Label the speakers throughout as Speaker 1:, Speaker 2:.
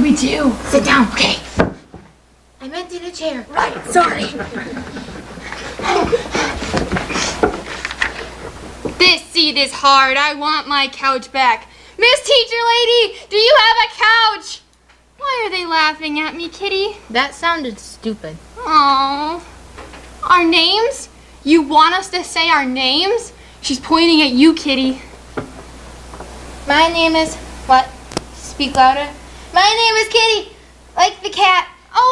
Speaker 1: Me too.
Speaker 2: Sit down, okay. I meant in a chair. Right, sorry.
Speaker 3: This seat is hard. I want my couch back. Miss Teacher Lady, do you have a couch? Why are they laughing at me, kitty?
Speaker 2: That sounded stupid.
Speaker 3: Aww. Our names? You want us to say our names? She's pointing at you, kitty.
Speaker 4: My name is what? Speak louder. My name is Kitty, like the cat,
Speaker 3: Oh,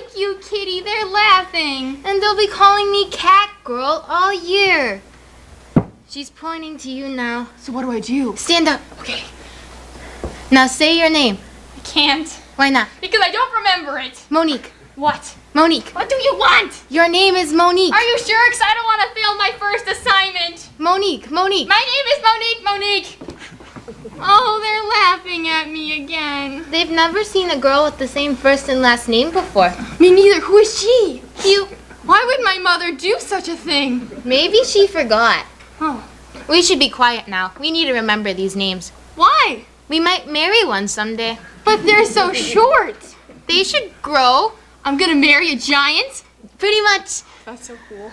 Speaker 3: they like you, kitty. They're laughing.
Speaker 4: and they'll be calling me Cat Girl all year. She's pointing to you now.
Speaker 1: So what do I do?
Speaker 4: Stand up. Okay. Now say your name.
Speaker 3: I can't
Speaker 4: Why not?
Speaker 3: because I don't remember it.
Speaker 4: Monique.
Speaker 3: What?
Speaker 4: Monique.
Speaker 3: What do you want?
Speaker 4: Your name is Monique.
Speaker 3: Are you sure? Because I don't want to fail my first assignment.
Speaker 4: Monique. Monique.
Speaker 3: My name is Monique, Monique. Oh, they're laughing at me again.
Speaker 4: They've never seen a girl with the same first and last name before.
Speaker 3: Me neither. Who is she? You. Why would my mother do such a thing?
Speaker 4: Maybe she forgot.
Speaker 3: Oh.
Speaker 4: We should be quiet now. We need to remember these names.
Speaker 3: Why?
Speaker 4: We might marry one someday.
Speaker 3: But they're so short.
Speaker 4: They should grow.
Speaker 3: I'm gonna marry a giant.
Speaker 4: Pretty much.
Speaker 3: That's so cool.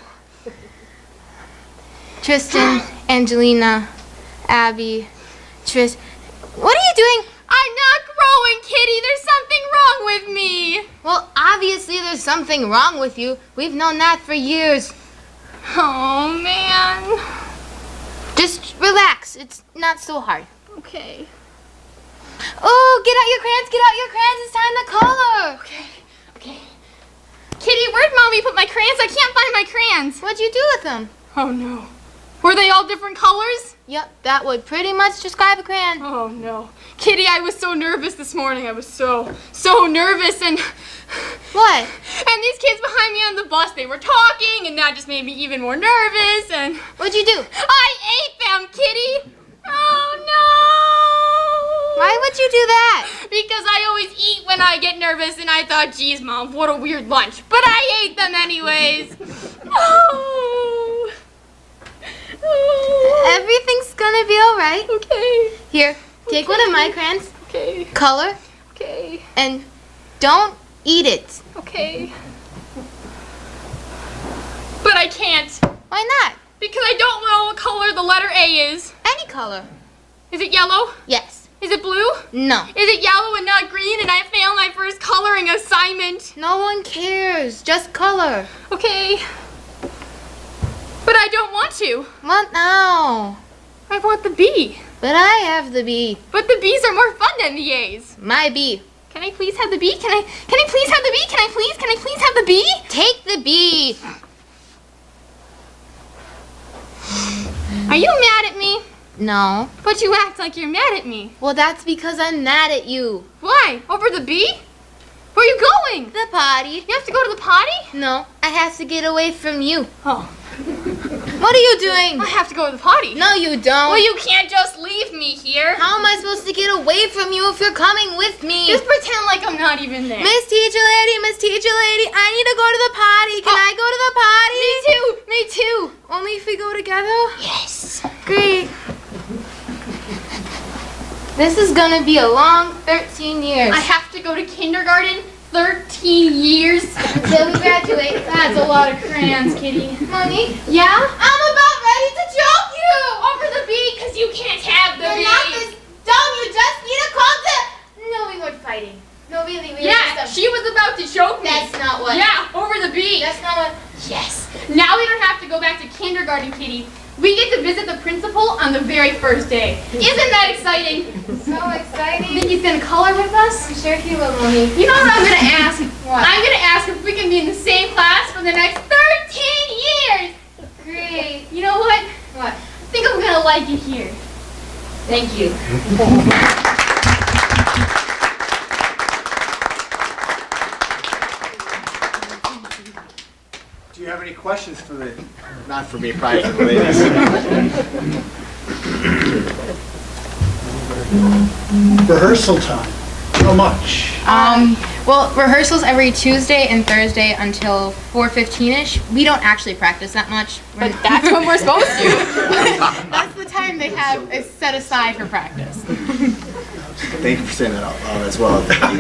Speaker 4: Tristan, Angelina, Abby, Tris. What are you doing?
Speaker 3: I'm not growing, Kitty. There's something wrong with me.
Speaker 4: Well, obviously there's something wrong with you. We've known that for years.
Speaker 3: Oh man.
Speaker 4: Just relax. It's not so hard.
Speaker 3: Okay.
Speaker 4: Oh, get out your crayons. Get out your crayons. It's time to color.
Speaker 3: Okay. Okay. Kitty, where'd mommy put my crayons? I can't find my crayons.
Speaker 4: What'd you do with them?
Speaker 3: Oh no. Were they all different colors?
Speaker 4: Yep, that would pretty much describe a crayon.
Speaker 3: Oh no. Kitty, I was so nervous this morning. I was so, so nervous and.
Speaker 4: What?
Speaker 3: And these kids behind me on the bus, they were talking, and that just made me even more nervous, and.
Speaker 4: What'd you do?
Speaker 3: I ate them, Kitty! Oh no!
Speaker 4: Why would you do that?
Speaker 3: Because I always eat when I get nervous, and I thought, geez, Mom, what a weird lunch. But I ate them anyways! oh! Oh.
Speaker 4: Everything's gonna be alright.
Speaker 3: Okay,
Speaker 4: Here, take one of my crayons,
Speaker 3: okay,
Speaker 4: color,
Speaker 3: okay,
Speaker 4: and don't eat it.
Speaker 3: okay. But I can't,
Speaker 4: Why not?
Speaker 3: because I don't know what color the letter A is.
Speaker 4: Any color.
Speaker 3: Is it yellow?
Speaker 4: Yes.
Speaker 3: Is it blue?
Speaker 4: No.
Speaker 3: Is it yellow and not green? And I fail my first coloring assignment.
Speaker 4: No one cares. Just color.
Speaker 3: Okay. But I don't want to.
Speaker 4: What now?
Speaker 3: I want the B.
Speaker 4: But I have the bee.
Speaker 3: But the B's are more fun than the A's.
Speaker 4: My bee.
Speaker 3: Can I please have the B? Can I can I please have the B? Can I please? Can I please have the B?
Speaker 4: Take the bee.
Speaker 3: Are you mad at me?
Speaker 4: No.
Speaker 3: But you act like you're mad at me.
Speaker 4: Well, that's because I'm mad at you.
Speaker 3: Why? Over the B? Where are you going?
Speaker 4: The potty.
Speaker 3: You have to go to the potty?
Speaker 4: No, I have to get away from you.
Speaker 3: Oh.
Speaker 4: What are you doing?
Speaker 3: I have to go to the potty.
Speaker 4: No, you don't.
Speaker 3: Well, you can't just leave me here.
Speaker 4: How am I supposed to get away from you if you're coming with me?
Speaker 3: Just pretend like I'm not even there.
Speaker 4: Miss Teacher Lady, Miss Teacher Lady, I need to go to the potty. Can
Speaker 3: Oh.
Speaker 4: I go to the potty?
Speaker 3: Me too. Me too.
Speaker 4: Only if we go together?
Speaker 3: Yes.
Speaker 4: Great. This is gonna be a long 13 years.
Speaker 3: I have to go to kindergarten 13 years until we graduate. That's a lot of crayons, kitty.
Speaker 4: Mommy,
Speaker 3: Yeah?
Speaker 4: I'm about ready to choke you!
Speaker 3: Over the B, because you can't have the
Speaker 4: You're
Speaker 3: B.
Speaker 4: not this dumb, you just need a call to... No, we weren't fighting. No, really, we
Speaker 3: yeah,
Speaker 4: were just...
Speaker 3: she was about to choke me.
Speaker 4: That's not what...
Speaker 3: yeah, over the B.
Speaker 4: That's not what...
Speaker 3: yes. Now we don't have to go back to kindergarten, kitty. We get to visit the principal on the very first day. Isn't that exciting?
Speaker 4: So exciting.
Speaker 3: Think he's gonna color with us?
Speaker 4: I'm sure he will, Mommy.
Speaker 3: You know what I'm gonna ask?
Speaker 4: What?
Speaker 3: I'm gonna ask if we can be in the same class for the next 13 years.
Speaker 4: Great.
Speaker 3: You know what?
Speaker 4: What?
Speaker 3: I think I'm gonna like it here.
Speaker 4: Thank you.
Speaker 5: Do you have any questions for the, not for me, probably for the ladies?
Speaker 6: rehearsal time. How much?
Speaker 2: Um, well, rehearsals every Tuesday and Thursday until 4.15ish. We don't actually practice that much. But that's when we're supposed to. that's the time they have is set aside for practice.
Speaker 5: Thank you for saying that out loud as well.